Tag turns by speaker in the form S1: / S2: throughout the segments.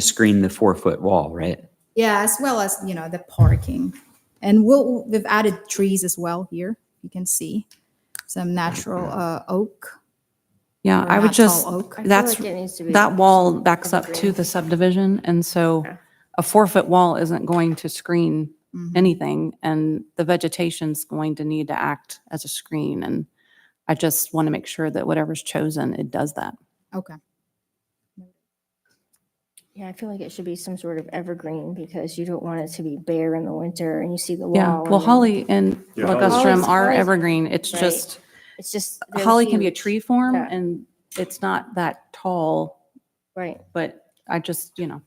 S1: screen the four-foot wall, right?
S2: Yeah, as well as, you know, the parking. And we'll, we've added trees as well here, you can see some natural uh, oak.
S3: Yeah,
S2: or
S3: I would
S2: not tall
S3: just,
S2: oak.
S4: I feel
S3: that's,
S4: like it needs to be-
S3: that wall backs up to
S4: green.
S3: the subdivision, and so
S4: Okay.
S3: a four-foot wall isn't going to screen
S2: Mhm.
S3: anything, and the vegetation's going to need to act as a screen, and I just want to make sure that whatever's chosen, it does that.
S2: Okay,
S4: Yeah, I feel like it should be some sort of evergreen because you don't want it to be bare in the winter and you see the wall.
S3: Yeah, well,
S4: and
S3: holly and
S5: Yeah, holly's-
S3: ligustrum are
S4: Holly's-
S3: evergreen, it's
S4: Right.
S3: just,
S4: It's just. they're
S3: holly can be a
S4: huge.
S3: tree form,
S4: Yeah.
S3: and it's not that tall,
S4: Right.
S3: but I just, you know,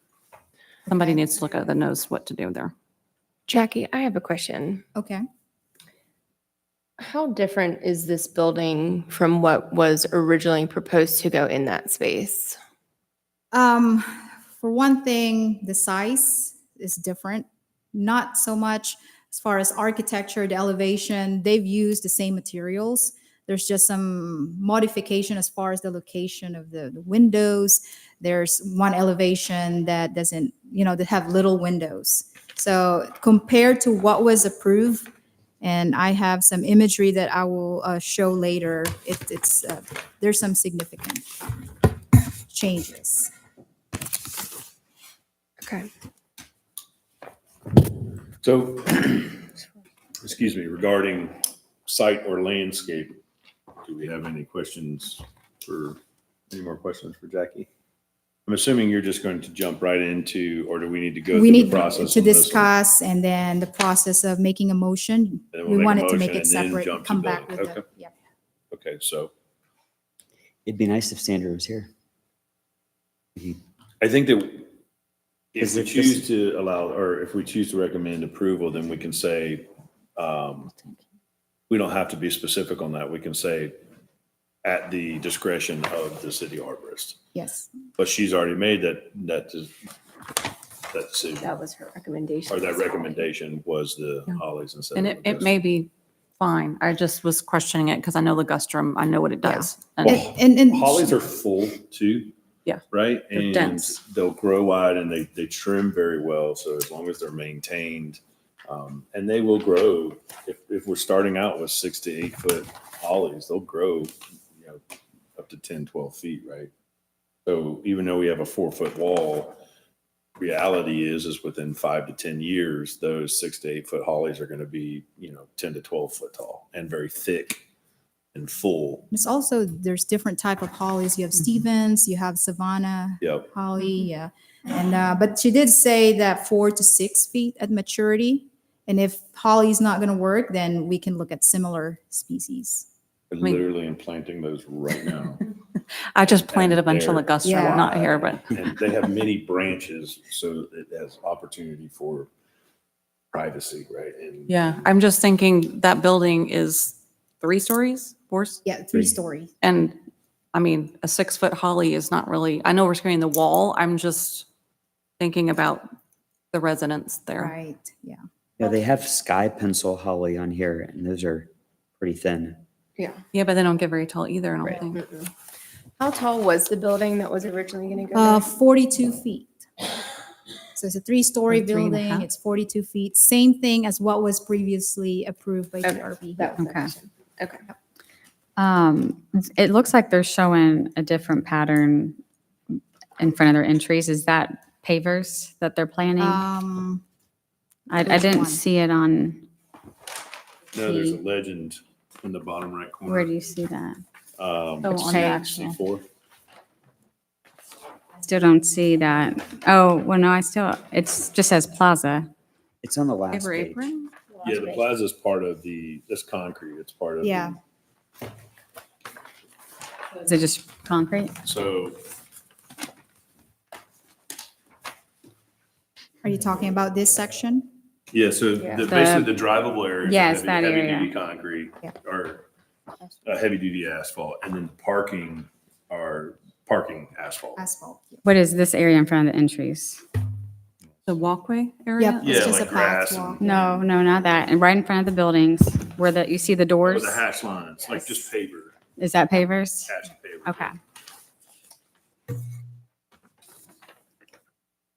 S3: somebody
S2: Okay.
S3: needs to look at it that knows what to do there.
S6: Jackie, I have a question.
S2: okay.
S6: How different is this building from what was originally proposed to go in that space?
S2: Um, for one thing, the size is different. Not so much as far as architecture, the elevation, they've used the same materials. There's just some modification as far as the location of the, the windows. There's one elevation that doesn't, you know, that have little windows. So compared to what was approved, and I have some imagery that I will uh, show later, it, it's, uh, there's some significant changes.
S6: Okay.
S5: So, excuse me, regarding site or landscape, do we have any questions for, any more questions for Jackie? I'm assuming you're just going to jump right into, or do we need to go
S2: We
S5: through the
S2: need
S5: process?
S2: to
S5: on this one?
S2: discuss and then the process of making a motion.
S5: Then
S2: We
S5: we'll make a
S2: wanted to
S5: motion
S2: make it
S5: and then
S2: separate,
S5: jump
S2: and
S5: to
S2: come back with
S5: building.
S2: it.
S5: Okay.
S2: Yeah.
S5: Okay, so
S1: It'd be nice if Sandra was here.
S5: I think that if
S1: Is
S5: we
S1: it just-
S5: choose to allow, or if we choose to recommend approval, then we can say, um, we don't have to be specific on that. We can say at the discretion of the city arborist.
S2: Yes,
S5: But she's already made that, that, des- that decision,
S6: That was her recommendation.
S5: or that recommendation was the
S3: Yeah.
S5: Hollies instead of.
S3: And it,
S5: Augusta.
S3: it may be fine. I just was questioning it because I know ligustrum, I know what it
S6: Yeah.
S3: does.
S2: and,
S3: And
S5: Well,
S2: and- and
S5: Hollies are full too.
S3: Yeah.
S5: Right?
S3: They're
S5: And
S3: dense.
S5: They'll grow wide and they, they trim very well. So as long as they're maintained, um, and they will grow. If, if we're starting out with six to eight foot hollies, they'll grow, you know, up to 10, 12 feet, right? So even though we have a four foot wall, reality is, is within five to 10 years, those six to eight foot hollies are going to be, you know, 10 to 12 foot tall and very thick and full.
S2: it's also, there's different type of hollies. You have
S5: Mm-hmm.
S2: Stevens, you have Savannah
S5: Yep. Mm-hmm.
S2: holly, yeah. And, uh, but she did say that four to six feet at maturity. And if holly's not going to work, then we can look at similar species.
S5: I
S3: mean-
S5: literally am planting those right now.
S3: I just planted a bunch of
S5: There.
S3: ligustrum, not here, but
S5: And they have many branches, so it has opportunity for privacy, right? And
S3: yeah, I'm just thinking that building is three stories, four, s-
S2: Yeah, three story.
S3: and I mean, a six-foot holly is not really, I know we're screening the wall. I'm just thinking about the residents there.
S2: Right, yeah.
S1: Yeah, they have sky pencil holly on here and those are pretty thin.
S3: Yeah, but they don't get very tall either, I don't think.
S6: Mm-mm. How tall was the building that was originally going to go
S2: Uh,
S6: in?
S2: forty-two feet. So it's a three-story
S3: Or three and a
S2: building,
S3: half?
S2: it's forty-two feet, same thing as what was previously approved by
S6: Okay,
S2: DRB.
S6: That was the
S7: Okay.
S6: question. Okay.
S7: Um, it looks like they're showing a different pattern in front of their entries. Is that pavers that they're planning? I,
S2: Um,
S7: I didn't
S2: one?
S7: see it on,
S5: no, there's a legend in the bottom right corner.
S7: where do you see that?
S5: Um,
S3: Oh,
S5: it's
S3: on
S5: C-
S7: the
S3: actual.
S5: C4.
S7: Still don't see that. Oh, well, no, I still, it's, just says plaza.
S1: It's on the last
S3: Paper
S1: page.
S3: apron?
S5: Yeah, the plaza's part of the, that's concrete, it's part of. the-
S2: Yeah.
S7: Is it just concrete?
S5: So
S2: are you talking about this section?
S5: Yeah, so
S4: Yeah.
S5: the,
S7: The-
S5: basically the drivable area.
S7: Yes, that area.
S5: Heavy duty concrete
S2: Yeah.
S5: or uh, heavy duty asphalt and then the parking are parking asphalt.
S2: Asphalt.
S7: What is this area in front of the entries?
S3: The walkway area?
S2: Yep,
S5: Yeah,
S2: it's just a
S5: like grass and-
S2: pathwalk.
S7: No, no, not that. And right in front of the buildings where the, you see the
S5: Or
S7: doors?
S5: the hash lines, like just paver,
S7: Is that pavers?
S5: hash paver.
S7: Okay.